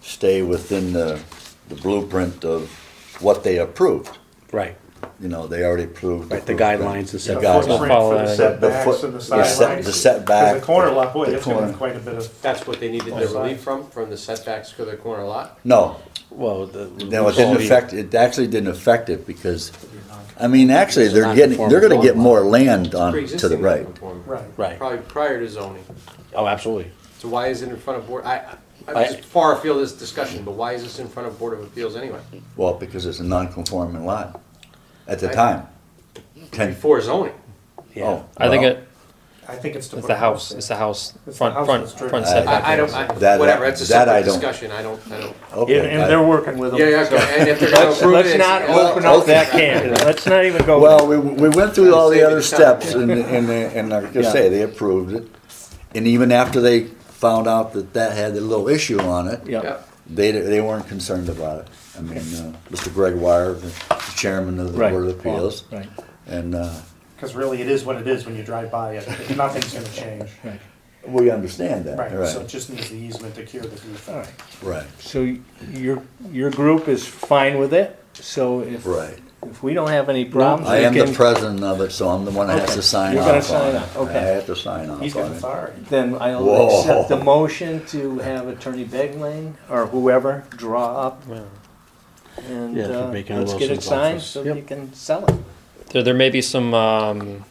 stay within the, the blueprint of what they approved. Right, You know, they already approved. right, the blueprint. guidelines and stuff. The guidelines. We'll Footprint for follow the that. setbacks foot- and the the set- sidelines. the setback, Because The corner lot, boy, the that's gonna have corner. quite a bit of, That's what they needed the Both sides. relief from, from the setbacks to the corner lot? No, Well, the. no, it didn't quality- affect, it actually didn't affect it because, I mean, actually, they're getting, they're gonna get more land on, to the Pre-existing right. non-conforming. right. Right, Probably prior to zoning. oh, absolutely. So why is it in front of board, I, I- I- I'm just far afield of this discussion, but why is this in front of Board of Appeals anyway? Well, because it's a non-conforming lot at the Right. time. Ten, Before zoning, Yeah, Oh. I think Well, it, I think it's to it's put the a house, there. it's the house, It's the front, house front, that's driven. front I- setback. I, I don't, That I, I- whatever, it's a that I separate don't- discussion, I don't, I don't. okay. And, and I- they're working with them. Yeah, yeah, okay, and if they're gonna Let's, approve let's it. not it's- open up okay. that can, let's not even go. Well, we, we went through all the Save other the time. steps and, and, and like I say, they approved it. And even after they found out that that had a little issue on it. yeah, Yeah. They, they weren't concerned about it. I mean, uh, Mr. Greg Wire, the chairman of the Right. Board of Appeals. Right. And, uh, Because really, it is what it is when you drive by it. Nothing's gonna change. we understand that, Right, so it right, just needs the easement to cure the All right. defect. right, So your, your group is fine with it, so if, right. if we don't have any Um, problems. I we am the can- president of it, so I'm the one that has Okay. to sign You're gonna off sign on off, it. okay. I have to sign off He's got on it. authority. Then I'll Whoa. accept the motion to have Attorney Begling or whoever draw up and Yeah, for uh, Baker let's get it Wilson's signed office. so Yep. you can sell it. There, there may be some, um,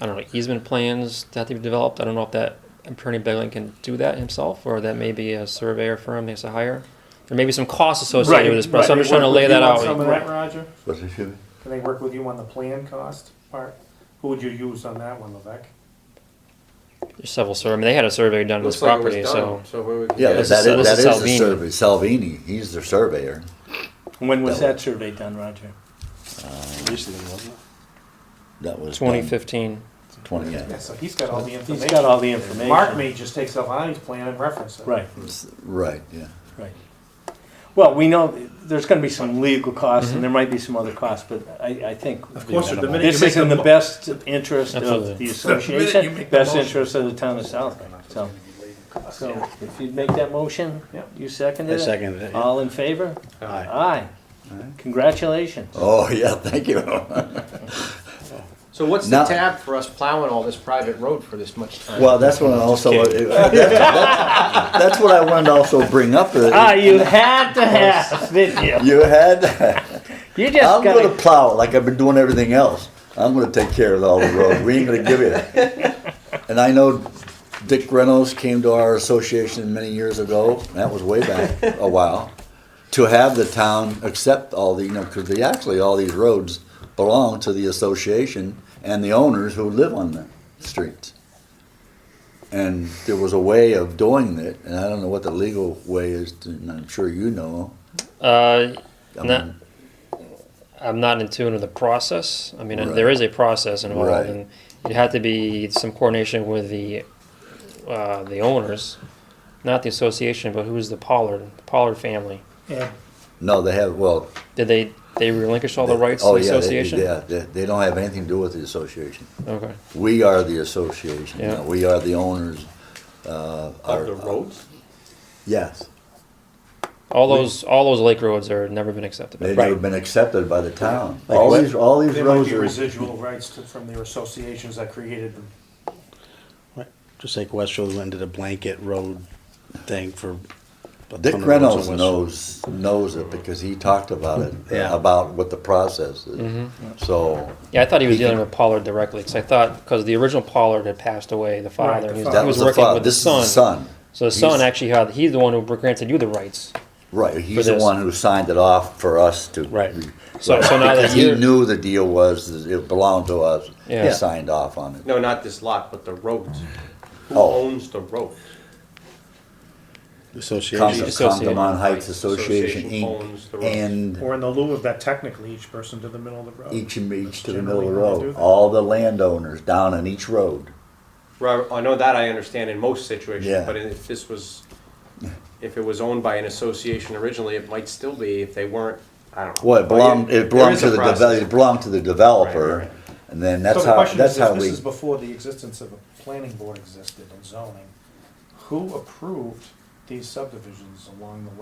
I don't know, easement plans that have to be developed. I don't know if that Attorney Begling can do that himself, or that may be a surveyor firm they has to hire. There may be some costs associated with this, but so I'm just trying to lay that They work out. with you on some of that, Roger? But if you- Can they work with you on the plan cost part? Who would you use on that one, Levesque? There's several survey. I mean, they had a survey done on this Looks like it was property, so done, so where we. Yeah, but this that is- is, this that is is the Salvini. survey, Salvini, he's the surveyor. When was That that survey done, Roger? Recently, wasn't it? That was. done 2015. Twenty, yeah. Yeah, so he's got all the He's information. got all the information. Mark may just take Salvani's plan and reference it. Right, Right, yeah. right. Well, we know there's gonna be some legal costs Mm-hmm. and there might be some other costs, but I, I think Of course, the minute you this make is in the the. best interest Absolutely. The of the you association, make the best motion. interest of the town of South Bank, so. So if you'd make that motion, Yeah. you second I it? seconded it. All in favor? Aye. Aye. Congratulations. Oh, yeah, thank you. So what's Now- the tab for us plowing all this private road for this much time? Well, that's what I also, that's, that's- that's what I wanted to also bring up. uh, Ah, you had to have, didn't you? You had, You just I'm gonna gotta, plow it like I've been doing everything else. I'm gonna take care of all the road. We ain't gonna give you that. And I know Dick Reynolds came to our association many years ago, that was way back a while, to have the town accept all the, you know, cause they, actually, all these roads belong to the association and the owners who live on the streets. And there was a way of doing it, and I don't know what the legal way is, to- and I'm sure you know. Uh, I No. mean, I'm not in tune with the process. I mean, there Right. is a process involved, Right. and it had to be some coordination with the uh, the owners, not the association, but who's the Pollard Pollard family. Yeah, No, they have, well, Did they they relinquish all the rights Oh, to the yeah, they- association? Yeah, they, they don't have anything to do with the association. Okay. We are the association, you Yeah. know, we are the owners, uh. our- Of the roads? Yes, All those all those lake roads are never been accepted. they've Right. never been accepted by the town. Like All what? these, all these there might roads be are, residual rights to- from their associations that created them. Just like Westfield went to the blanket road thing for. a Dick ton of roads in Reynolds Westfield. knows, knows it because he talked about it, uh, Yeah. about what the process is. Mm-hmm. So, Yeah, I thought he was He dealing can- with Pollard directly because I thought because the original Pollard had passed away, the father. the he, was, father. that he was was the working father, with the this is the son. son, So the son He's- actually had he's the one who granted you the rights. right, he's the this. one who signed it off for us to. Right. So so now that Because he you're knew the deal was, that it belonged to us, he Yeah. signed off on it. No, not this lot, but the roads. Who Oh. owns the roads? Comes Association. of Associated. Congamon Heights Association Association owns the Inc. roads. and Or in the lieu of that, technically, each person to the middle of the road. each and each to the middle Generally of the how they do road, that. all the landowners down on each road. Right, I know that I understand in most situations, Yeah. but if this was, if it was owned by an association originally, it might still be if they weren't, I don't know. Well, it belonged, There it belonged is to a the, process. deve- it belonged to the Right, developer, and then that's So the how, question that's is, how if this we, is before the existence of a planning board existed in zoning, who approved these subdivisions along the way?